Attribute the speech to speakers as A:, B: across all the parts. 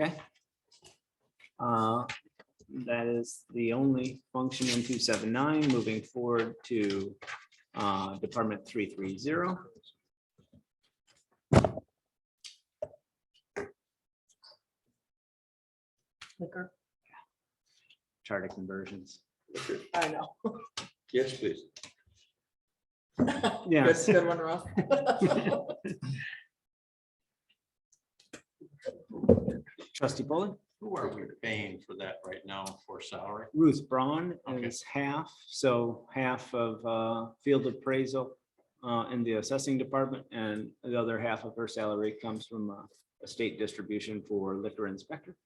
A: Okay. Uh, That is the only function in two seven nine, moving forward to uh, Department three three zero.
B: Liquor.
A: Charter conversions.
B: I know.
C: Yes, please.
A: Yeah,
B: That's a good one, Ross.
A: trustee Polly,
C: Who are we paying for that right now for salary?
A: Ruth Braun
C: Okay.
A: is half, so half of uh, field appraisal uh, in the assessing department, and the other half of her salary comes from uh, a state distribution for liquor inspector.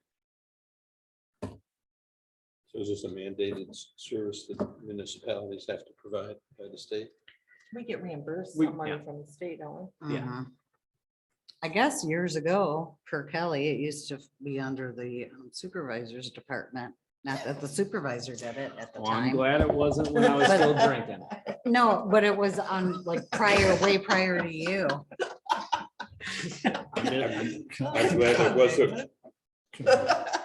C: So is this a mandated s- service that municipalities have to provide by the state?
B: We get reimbursed
A: We-
B: some money
A: yeah.
B: from the state, don't we?
A: Yeah.
D: Mhm. I guess years ago, per Kelly, it used to be under the um, supervisor's department, not that the supervisor did it at the
A: Well, I'm
D: time.
A: glad it wasn't when I was still drinking.
D: No, but it was on like prior, way prior to you.
A: I'm just-
C: I'm glad it wasn't.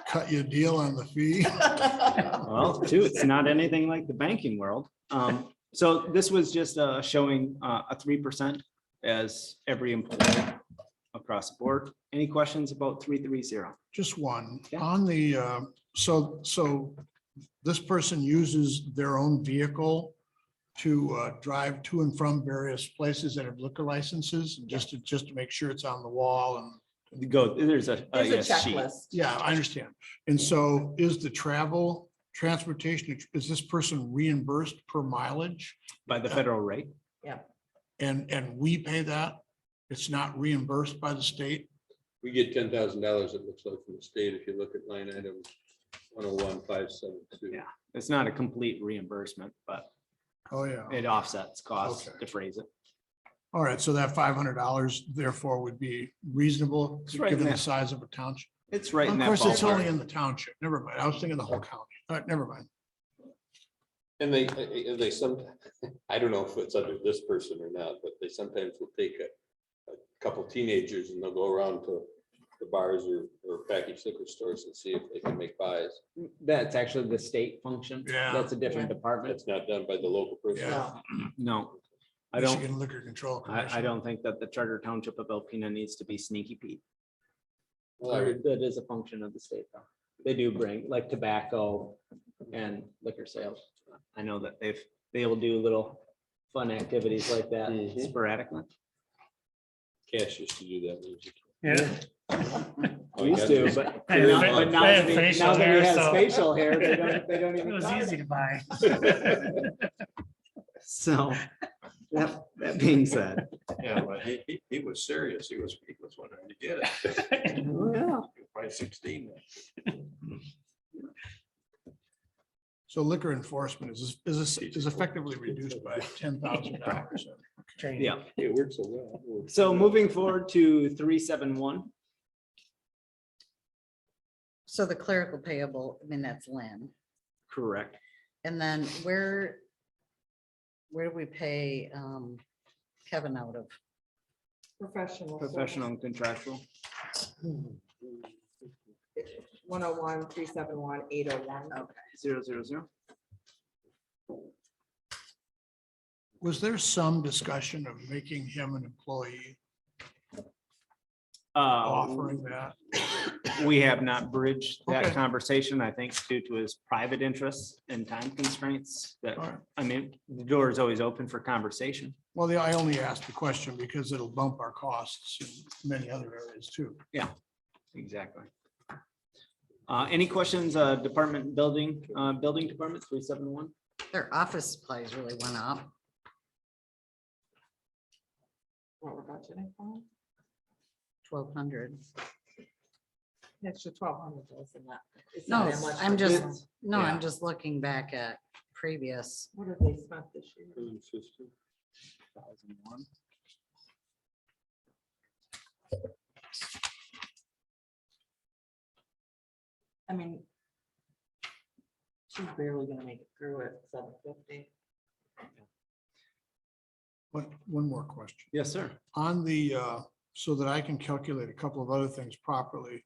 E: cut you a deal on the fee.
D: Uh,
A: Well, too, it's not anything like the banking world. Um, so this was just, uh, showing, uh, a three percent as every employee across the board. Any questions about three, three, zero?
E: Just one,
A: Yeah.
E: on the, uh, so, so this person uses their own vehicle to uh, drive to and from various places that have liquor licenses, and just to, just to make sure it's on the wall and,
A: Go, there's a. a
B: There's a
A: yes sheet.
B: checklist.
E: yeah, I understand. And so is the travel, transportation, is this person reimbursed per mileage?
A: By the federal rate.
E: And, and we pay that? It's not reimbursed by the state?
C: We get ten thousand dollars, it looks like, from the state, if you look at line item one oh one five seven two.
A: Yeah. It's not a complete reimbursement, but
E: Oh, yeah.
A: it offsets costs
E: Okay.
A: to phrase it.
E: All right, so that five hundred dollars therefore would be reasonable,
A: It's right in
E: given
A: that-
E: the size of a township.
A: It's right in
E: Of
A: that
E: course, it's only
A: ballpark.
E: in the township. Never mind. I was thinking the whole county. All right, never mind.
C: And they, and they some, I don't know if it's under this person or not, but they sometimes will take a, a couple teenagers and they'll go around to the bars or, or package liquor stores and see if they can make buys.
A: That's actually the state function.
E: Yeah.
A: That's a different department.
C: That's not done by the local person.
E: Yeah.
B: No.
A: No, I don't,
E: Michigan Liquor Control.
A: I, I
E: Commission.
A: don't think that the charter township of Alpena needs to be sneaky Pete.
C: Well, I-
A: That that is a function of the state though. They do bring like tobacco and liquor sales. I know that they've, they will do little fun activities like that
C: Mhm.
A: sporadically.
C: Cash used to do that.
F: Yeah,
C: Oh, you
A: Used
C: got
A: to,
C: this.
A: but
F: They have
A: but
F: fa-
A: now
F: they have
A: that he
F: facial
A: now that he
F: hair,
A: has
F: so-
A: facial hair, they don't, they don't
F: it
A: even.
F: was
A: talk.
F: easy to buy.
A: So that, that being said.
G: Yeah, but he, he, he was serious. He was, he was wondering to get it.
A: Oh, yeah.
G: He was Probably sixteen. then.
E: So liquor enforcement is, is, is effectively reduced by ten thousand dollars.
F: Training.
A: Yeah.
C: It works so well. It works
A: So
C: well.
A: moving forward to three, seven, one.
D: So the clerical payable, I mean, that's Lynn.
A: Correct.
D: And then where, where do we pay um, Kevin out of?
B: Professional.
A: Professional and contractual.
B: One oh one, three seven one, eight oh one.
A: Zero, zero, zero.
E: Was there some discussion of making him an employee,
A: Uh,
E: offering that?
A: We have not bridged that
E: Okay.
A: conversation, I think, due to his private interests and time constraints that,
E: All right.
A: I mean, the door is always open for conversation.
E: Well, the- I only asked the question because it'll bump our costs in many other areas too.
A: Exactly. Uh, any questions, uh, department building, uh, building department three seven one?
D: Their office supplies really went up.
B: What we're budgeting for.
D: twelve hundred.
B: An Extra twelve hundred dollars in that. It's not
D: No,
B: that much,
D: I'm
B: but
D: just,
B: it's-
D: no,
A: Yeah.
D: I'm just looking back at previous.
B: What have they spent this year? I mean. She's barely gonna make it through at seven fifty.
E: But one more question.
A: Yes, sir.
E: on the, uh, so that I can calculate a couple of other things properly.